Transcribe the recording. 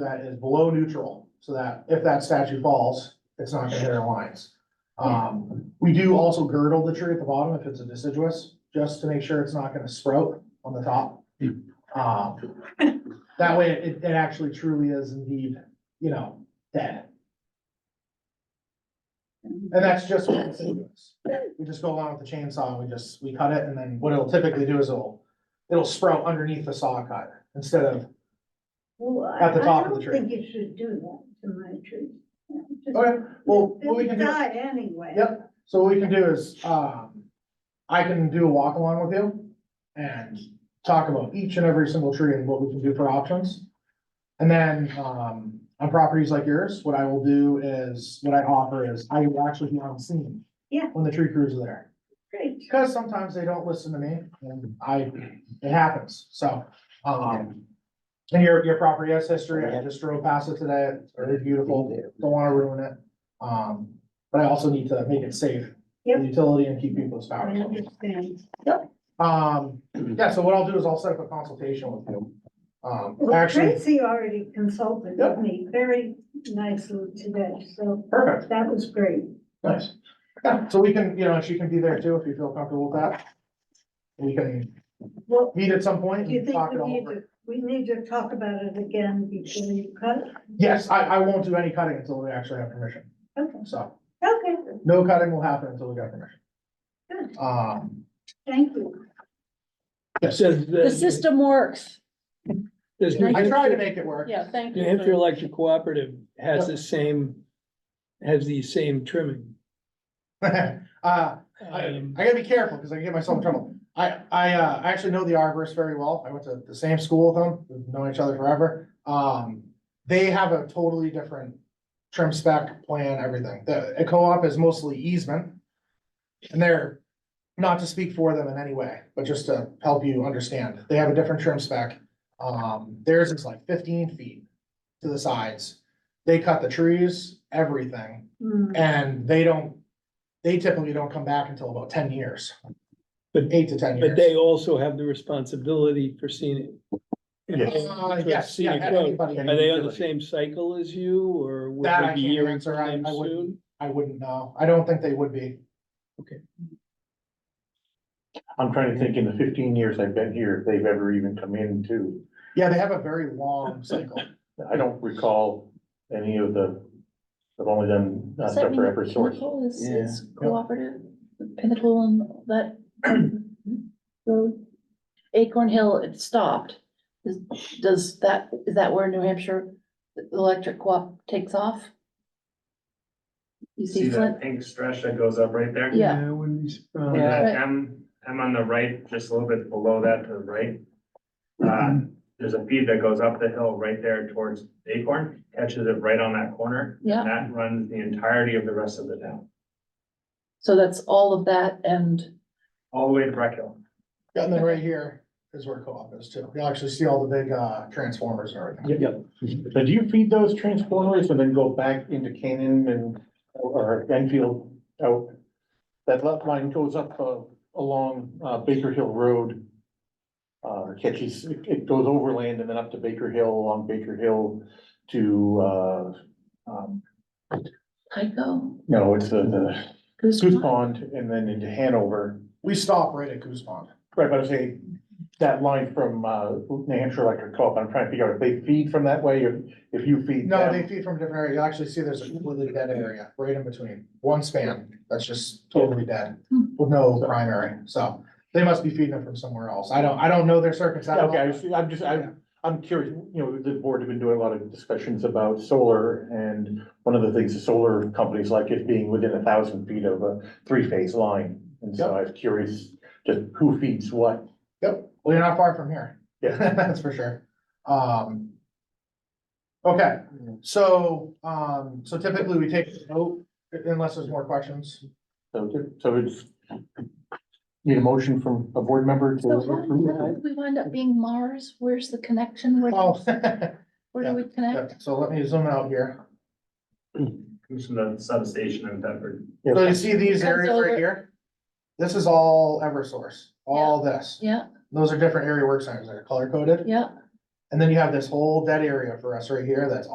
that is below neutral, so that if that statue falls, it's not gonna hit our lines. Um, we do also girdle the tree at the bottom if it's a deciduous, just to make sure it's not gonna sprout on the top. Um, that way it, it actually truly is indeed, you know, dead. And that's just what the thing is. We just go along with the chainsaw, we just, we cut it, and then what it'll typically do is it'll, it'll sprout underneath the saw cut instead of, Well, I- At the top of the I tree. don't think you should do that to my tree. Yeah, just- okay, well, what we It'll can do. Die anyway. Yep, so what we can do is, um, I can do a walk along with you and talk about each and every single tree and what we can do for options. And then, um, on properties like yours, what I will do is, what I offer is, I will actually be on scene. Yeah. When the tree crews are there. Great. Because sometimes they don't listen to me and I, it happens, so, um. And your, your property has history, I just drove past it today, it's very beautiful, don't wanna ruin it. Um, but I also need to make it safe. for Yep. Utility and keep people's I power. understand. Um, yeah, so what I'll do is I'll set up a consultation with you. Um, Well, actually, Tracy already consulted with Yep. me very nicely today, so perfect, that was great. nice. Yeah, so we can, you know, she can be there too if you feel comfortable with that. We can Well, meet at some point do you and think talk it we all need over. to, we need to talk about it again before you cut? Yes, I, I won't do any cutting until we actually have permission. Okay, So okay, no cutting will happen until we get permission. Good. Um, thank you. yes, Says that- The system works. says New I try to Hampshire- make it work. Yeah, thank New you. Hampshire Electric Cooperative has the same, has the same trimming. Uh, I, I Um, gotta be careful because I can get myself in trouble. I, I, uh, I actually know the arborist very well. I went to the same school with them. We've known each other forever. Um, they have a totally different trim spec plan, everything. The, a co-op is mostly easement. And they're, not to speak for them in any way, but just to help you understand, they have a different trim spec. Um, theirs is like fifteen feet to the sides. They cut the trees, everything. Hmm, And they don't, they typically don't come back until about ten years. But- Eight to ten years. But they also have the responsibility for scenic. Uh, for yes, yeah, scenic road. anybody- Are they on the same cycle as you or would That I they be can't hearing answer. from I- them I wouldn't- soon? I wouldn't know. I don't think they would be. I'm trying to think in the fifteen years I've been here, if they've ever even come in too. Yeah, they have a very long cycle. I don't recall any of the, I've only done uh, Does that stuff mean for every source. Pinnacle is, Yeah. is cooperative, Pinnacle and that road, Acorn Hill, it stopped. Is, does that, is that where New Hampshire Electric Co-op takes off? You See see that Flint, pink stretch that goes up right there? Yeah. I wouldn't be surprised. And that Right. M, M on the right, just a little bit below that to the right. Uh, there's a feed that goes up the hill right there towards Acorn, catches it right on that corner. yeah, And that runs the entirety of the rest of the town, so that's all of that and, all the way to Breck Hill. And then right here is where co-op is too. You'll actually see all the big, uh, transformers and everything. Yep. So do you feed those transformers and then go back into Canaan and, or Enfield out? That left line goes up, uh, along, uh, Baker Hill Road. Uh, catches, it- it goes overland and then up to Baker Hill, along Baker Hill to, uh, um, Tyco, no, it's the, the Goose Goose Pond, Pond and then into Hanover. We stop right at Goose Pond. Right, but I say, that line from, uh, New Hampshire Electric Co-op, I'm trying to figure out if they feed from that way or if you feed. No, them. they feed from a different area. You'll actually see there's a completely dead area right in between. One span that's just totally dead with no primary. So they must be feeding it from somewhere else. I don't, I don't know their circuits. that Yeah, well. Okay, I see. I'm just, I'm, I'm curious, you know, the board have been doing a lot of discussions about solar and one of the things the solar companies like is being within a thousand feet of a three-phase line. And so I was curious, just who feeds what? Yep, well, you're not far from here. Yeah. That's for sure. Um. Okay, so, um, so typically we take a vote unless there's more questions. So, so it's, need a motion from a board member to so uh, how approve how it? did we wind up being Mars, where's the connection, where, Oh, where do we connect? so let me zoom out here. Comes from the substation in Bedford. So you see these Comes areas right over. here? This is all Eversource, all this. Yeah, Those are different area work centers that are color coded. yeah, And then you have this whole dead area for us right here that's